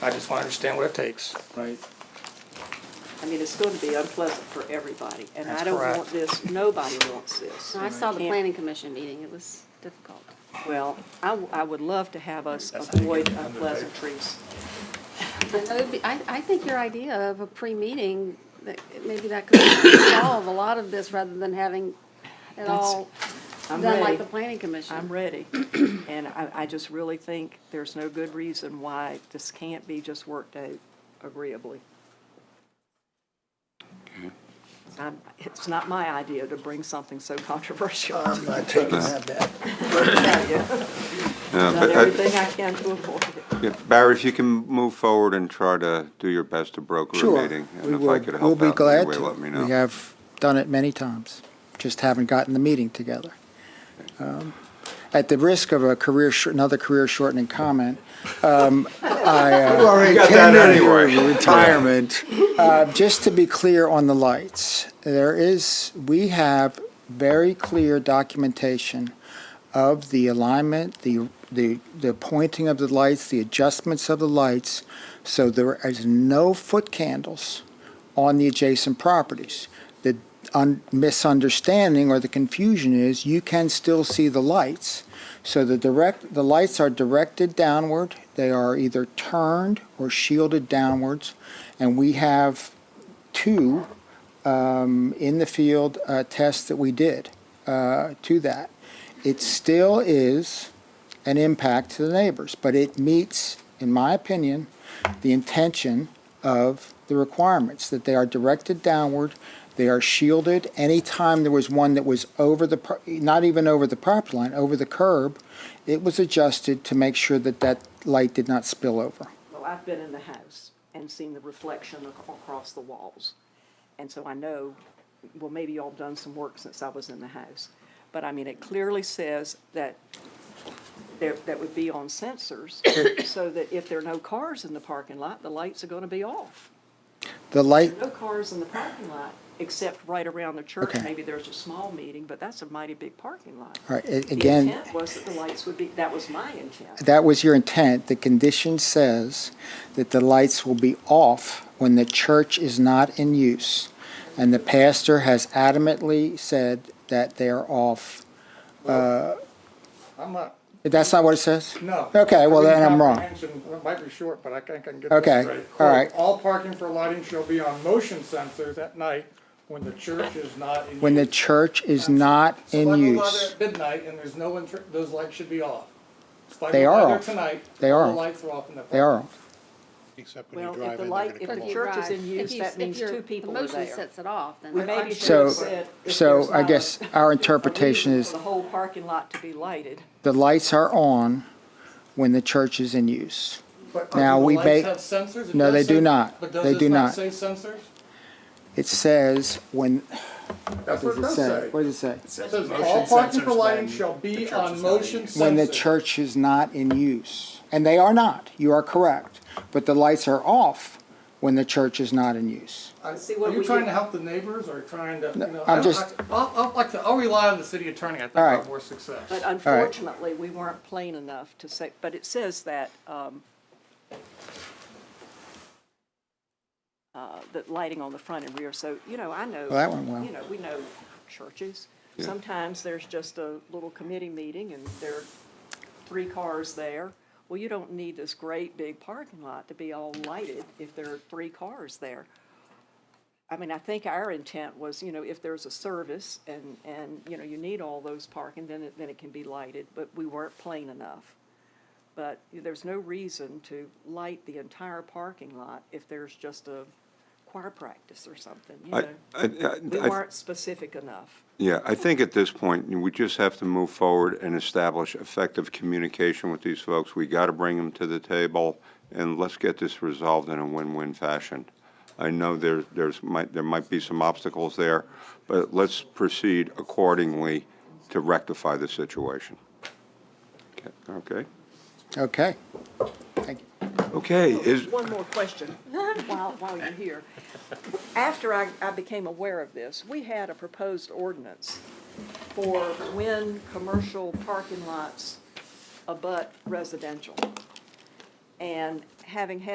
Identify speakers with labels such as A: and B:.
A: I just want to understand what it takes.
B: right?
C: I mean, it's going to be unpleasant for everybody, and
A: That's
C: I don't
A: correct.
C: want this, nobody wants this.
D: I saw the
C: Can't-
D: planning commission meeting, it was difficult.
C: Well, I, w- I would love to have us
B: That's how you
C: avoid
B: get it under the
C: unpleasantries.
D: And it would be- I, I think your idea of a pre-meeting, that maybe that could solve a lot of this rather than having it all
C: I'm
D: done like
C: ready.
D: the planning commission.
C: I'm ready, and I, I just really think there's no good reason why this can't be just worked out agreeably. I'm, it's not my idea to bring something so controversial.
B: I'm not taking that.
C: I've
E: Yeah,
C: Done
E: but I-
C: everything I can to avoid it.
E: yeah, Barry, if you can move forward and try to do your best to broker a
B: Sure.
E: meeting.
B: we
E: And if I
B: will.
E: could
B: We'll
E: help
B: be
E: out in any
B: glad
E: way,
B: to.
E: let me know.
B: We have done it many times, just haven't gotten the meeting together. Um, At the risk of a career, shor- another career shortening comment, um, I. uh,
E: You got that anyway.
F: retirement.
B: Uh, Just to be clear on the lights, there is, we have very clear documentation of the alignment, the, the, the pointing of the lights, the adjustments of the lights, so there is no foot candles on the adjacent properties. The un- misunderstanding or the confusion is you can still see the lights. So the direct, the lights are directed downward, they are either turned or shielded downwards, and we have two um, in the field uh, tests that we did uh, to that. It still is an impact to the neighbors, but it meets, in my opinion, the intention of the requirements, that they are directed downward, they are shielded. Anytime there was one that was over the, pro- not even over the property line, over the curb, it was adjusted to make sure that that light did not spill over.
C: Well, I've been in the house and seen the reflection ac- across the walls. And so I know, well, maybe y'all have done some work since I was in the house. But I mean, it clearly says that there, that would be on sensors so that if there are no cars in the parking lot, the lights are gonna be off.
B: The light,
C: No cars in the parking lot, except right around the church.
B: Okay.
C: Maybe there's a small meeting, but that's a mighty big parking lot.
B: all right, a-
C: The
B: again.
C: intent was that the lights would be, that was my intent.
B: that was your intent. The condition says that the lights will be off when the church is not in use. And the pastor has adamantly said that they are off.
G: I'm not,
B: That's not what it says?
G: no.
B: Okay, well, then I'm wrong.
G: Comprehension, It might be short, but I think I can get this
B: Okay,
G: straight.
B: all right.
G: All parking for lighting shall be on motion sensors at night when the church is not in use.
B: When the church is not in
G: If I go by there
B: use.
G: at midnight and there's no one, tr- those lights should be off. If I
B: They
G: go
B: are
G: by there
B: off.
G: Tonight.
B: They
G: all
B: are
G: The
B: off.
G: lights are off in the.
B: They are off.
H: Except when you
C: Well,
H: drive
C: if
H: in,
C: the
H: they're
C: light,
H: gonna
C: if
D: But
H: come
C: the
D: if
H: on.
D: you
C: church is
D: drive-
C: in
D: if
C: use,
D: you-
C: that
D: if
C: means
D: your
C: two people are
D: Motion
C: there.
D: sets it off, then.
C: We
D: I-
C: maybe should
B: So-
C: have said. if
B: So
C: there's
B: I
C: not
B: guess
C: a-
B: our
C: a
B: interpretation
C: reason
B: is
C: For the whole parking lot to be lighted.
B: the lights are on when the church is in use.
G: But
B: Now,
G: do the
B: we may-
G: lights have sensors? It
B: No,
G: does
B: they do
G: say-
B: not.
G: But does
B: They
G: this
B: do not.
G: Say sensors?
B: It says when,
G: That's
B: what
G: what it
B: does it
G: does
B: say?
G: say.
B: What does it say?
G: It says all parking for lighting shall be on motion sensors.
B: When the church is not in use. And they are not, you are correct. But the lights are off when the church is not in use.
G: I-
C: See what
G: Are you
C: we
G: trying
C: do.
G: to help the neighbors or trying to, you know?
B: I'm
G: I-
B: just-
G: I- I'll, I'll, like I said, I'll rely on the city attorney, I think
B: All
G: I'll
B: right.
G: have more success.
C: But unfortunately, we weren't plain enough to say, but it says that, um, uh, that lighting on the front and rear, so, you know, I know.
B: Well, that went well.
C: You know, we know churches. Sometimes there's just a little committee meeting and there are three cars there. Well, you don't need this great big parking lot to be all lighted if there are three cars there. I mean, I think our intent was, you know, if there's a service and, and, you know, you need all those parking, then it, then it can be lighted, but we weren't plain enough. But there's no reason to light the entire parking lot if there's just a choir practice or something, you
E: I-
C: know?
E: I-
C: We
E: I- I-
C: weren't specific enough.
E: Yeah, I think at this point, we just have to move forward and establish effective communication with these folks. We got to bring them to the table, and let's get this resolved in a win-win fashion. I know there, there's, might, there might be some obstacles there, but let's proceed accordingly to rectify the situation. Okay?
B: Okay. Thank you.
E: Okay, is,
C: One more question while, while you're here. After I, I became aware of this, we had a proposed ordinance for when commercial parking lots abut residential. And having had